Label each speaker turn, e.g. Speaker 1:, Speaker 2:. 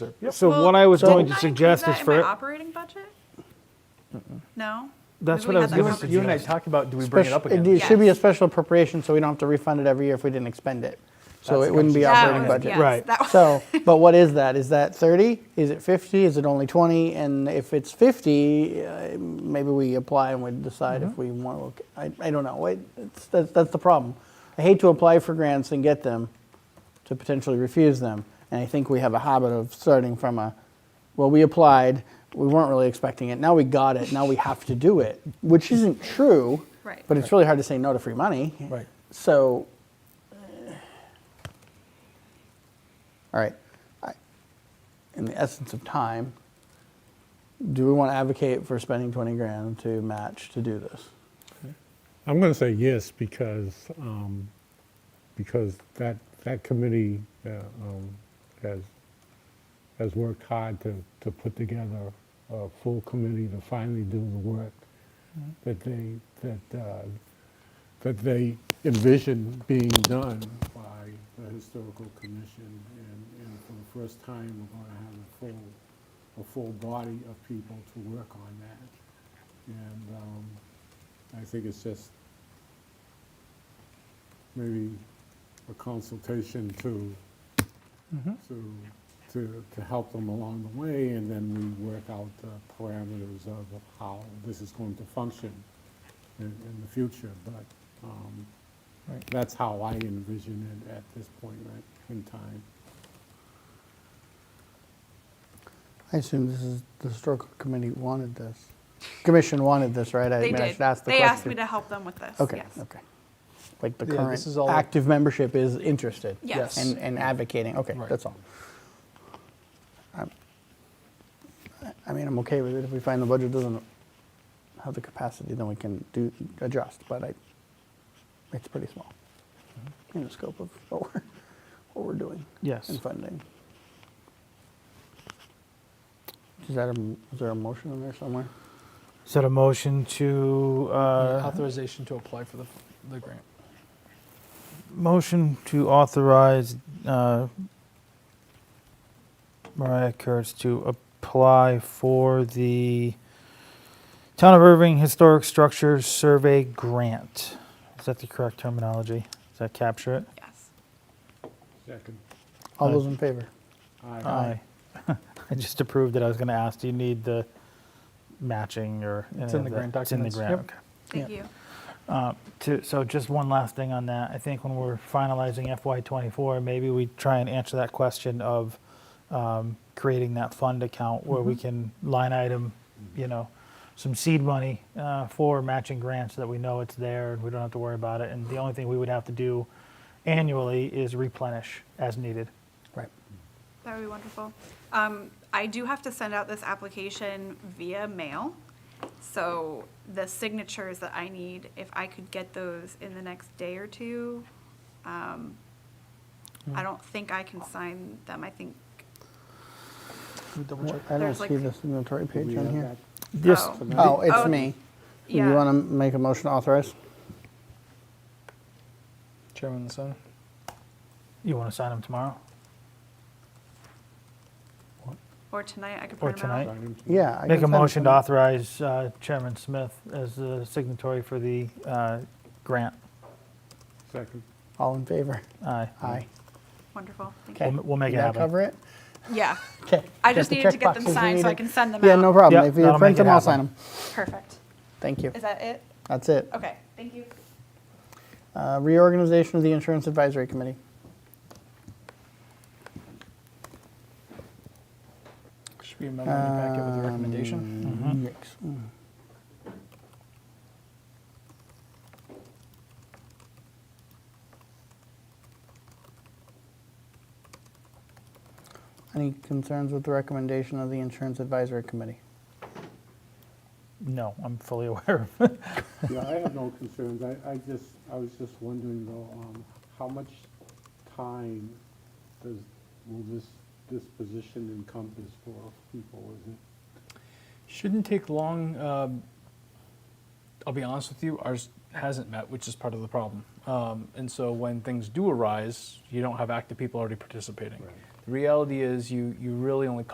Speaker 1: So
Speaker 2: Well,
Speaker 1: what I was
Speaker 2: didn't
Speaker 1: going to
Speaker 2: I include
Speaker 1: suggest
Speaker 2: that
Speaker 1: is
Speaker 2: in
Speaker 1: for,
Speaker 2: my operating budget? No?
Speaker 1: that's
Speaker 2: Maybe
Speaker 1: what
Speaker 2: we
Speaker 1: I
Speaker 3: You
Speaker 2: had that
Speaker 1: was going
Speaker 2: conversation.
Speaker 1: to
Speaker 3: and- you and I
Speaker 1: suggest.
Speaker 3: talked about, do we bring it up
Speaker 4: Spec- It
Speaker 3: again?
Speaker 4: it should be a
Speaker 2: Yes.
Speaker 4: special appropriation, so we don't have to refund it every year if we didn't expend it. So
Speaker 3: That's
Speaker 4: it wouldn't be
Speaker 3: what I'm
Speaker 2: That
Speaker 4: operating
Speaker 2: was-
Speaker 4: budget.
Speaker 2: yes,
Speaker 1: Right.
Speaker 2: Oh, that was-
Speaker 4: So, but what is that? Is that 30? Is it 50? Is it only 20? And if it's 50, uh, maybe we apply and we decide
Speaker 3: Mm-hmm.
Speaker 4: if we want to, I, I don't know. It- It's, that's, that's the problem. I hate to apply for grants and get them to potentially refuse them. And I think we have a habit of starting from a, well, we applied, we weren't really expecting it, now we got it, now we have to do it, which isn't true.
Speaker 2: Right.
Speaker 4: But it's really hard to say no to free money.
Speaker 3: Right.
Speaker 4: So, all right, I- in the essence of time, do we want to advocate for spending 20 grand to match to do this?
Speaker 5: I'm going to say yes because, um, because that, that committee uh, um, has, has worked hard to, to put together a full committee to finally do the work that they, that, uh, that they envision being done by the Historical Commission. And, and for the first time, we're going to have a full, a full body of people to work on that. And, um, I think it's just maybe a consultation to,
Speaker 4: Mm-hmm.
Speaker 5: to, to, to help them along the way, and then we work out the parameters of how this is going to function in, in the future, but, um, that's how I envision it at this point right, in time.
Speaker 4: I assume this is, the historical committee wanted this. Commission wanted this, right? I
Speaker 2: They
Speaker 4: mean, I
Speaker 2: did.
Speaker 4: should ask the
Speaker 2: They
Speaker 4: question.
Speaker 2: asked me to help them with this,
Speaker 4: Okay,
Speaker 2: yes.
Speaker 4: okay. Like the
Speaker 3: Yeah, this is
Speaker 4: current
Speaker 3: all-
Speaker 4: active membership is interested?
Speaker 2: Yes.
Speaker 4: And, and advocating, okay,
Speaker 3: Right.
Speaker 4: that's all. I'm- I I mean, I'm okay with it, if we find the budget doesn't have the capacity, then we can do, adjust, but I, it's pretty small
Speaker 3: Mm-hmm.
Speaker 4: in the scope of what we're, what we're doing.
Speaker 1: Yes.
Speaker 4: And funding. Is that a, m- is there a motion in there somewhere?
Speaker 1: Set a motion to, uh,
Speaker 3: Authorization to apply for the, the grant.
Speaker 1: motion to authorize uh, Mariah Kurtz to apply for the Town of Irving Historic Structures Survey Grant. Is that the correct terminology? Does that capture it?
Speaker 2: Yes.
Speaker 5: Second.
Speaker 4: All
Speaker 1: Aye.
Speaker 4: those in favor?
Speaker 1: Aye. I just approved it. I was going to ask, do you need the matching or?
Speaker 3: It's in
Speaker 1: any of
Speaker 3: the
Speaker 1: that?
Speaker 3: grant
Speaker 1: It's in the
Speaker 3: documents. Yep.
Speaker 1: grant, okay.
Speaker 2: Thank you.
Speaker 1: Uh, to- So just one last thing on that. I think when we're finalizing FY '24, maybe we try and answer that question of um, creating that fund account where
Speaker 4: Mm-hmm.
Speaker 1: we can line item, you know, some seed money uh, for matching grants so that we know it's there and we don't have to worry about it. And the only thing we would have to do annually is replenish as needed.
Speaker 4: Right.
Speaker 2: That would be wonderful. Um, I do have to send out this application via mail. So the signatures that I need, if I could get those in the next day or two, um,
Speaker 4: Hmm.
Speaker 2: I don't think I can sign them. I think,
Speaker 4: Wha- I don't
Speaker 2: There's
Speaker 4: see
Speaker 2: like-
Speaker 4: the signatory
Speaker 5: Do we
Speaker 4: page on
Speaker 5: have
Speaker 4: here.
Speaker 5: that?
Speaker 1: Yes.
Speaker 2: Oh.
Speaker 4: Oh, it's
Speaker 2: Oh,
Speaker 4: me. Do you want
Speaker 2: yeah,
Speaker 4: to make a motion to authorize?
Speaker 3: Chairman Sun?
Speaker 1: You want to sign them tomorrow?
Speaker 2: or tonight, I could
Speaker 1: Or
Speaker 2: print them out.
Speaker 1: tonight.
Speaker 5: Item two.
Speaker 4: Yeah. I
Speaker 1: Make
Speaker 4: can
Speaker 1: a
Speaker 4: send it
Speaker 1: motion to
Speaker 4: them.
Speaker 1: authorize uh, Chairman Smith as the signatory for the uh, grant.
Speaker 5: Second.
Speaker 4: All in favor?
Speaker 1: Aye.
Speaker 4: Aye.
Speaker 2: Wonderful, thank
Speaker 1: We'll
Speaker 2: you.
Speaker 1: m- we'll make
Speaker 4: Did
Speaker 1: it
Speaker 4: that
Speaker 1: happen.
Speaker 4: cover it?
Speaker 2: Yeah,
Speaker 4: Okay.
Speaker 2: I just needed to get them signed so I can send them out.
Speaker 4: Yeah, no problem.
Speaker 1: Yep,
Speaker 4: If you
Speaker 1: that'll
Speaker 4: print
Speaker 1: make it
Speaker 4: them, I'll sign them.
Speaker 1: happen.
Speaker 2: Perfect.
Speaker 4: Thank you.
Speaker 2: Is that it?
Speaker 4: That's it.
Speaker 2: Okay, thank you.
Speaker 4: Uh, Reorganization of the Insurance Advisory Committee.
Speaker 3: Should be a memo in the packet with a
Speaker 4: Um,
Speaker 1: Um,
Speaker 3: recommendation.
Speaker 4: recommendation. Yes. Any concerns with the recommendation of the Insurance Advisory Committee?
Speaker 1: No, I'm fully aware of it.
Speaker 5: Yeah, I have no concerns. I, I just, I was just wondering though, um, how much time does, will this, this position encompass for people? Is it
Speaker 3: Shouldn't take long. Um, I'll be honest with you, ours hasn't met, which is part of the problem. Um, and so when things do arise, you don't have active people already participating. The reality is you, you really only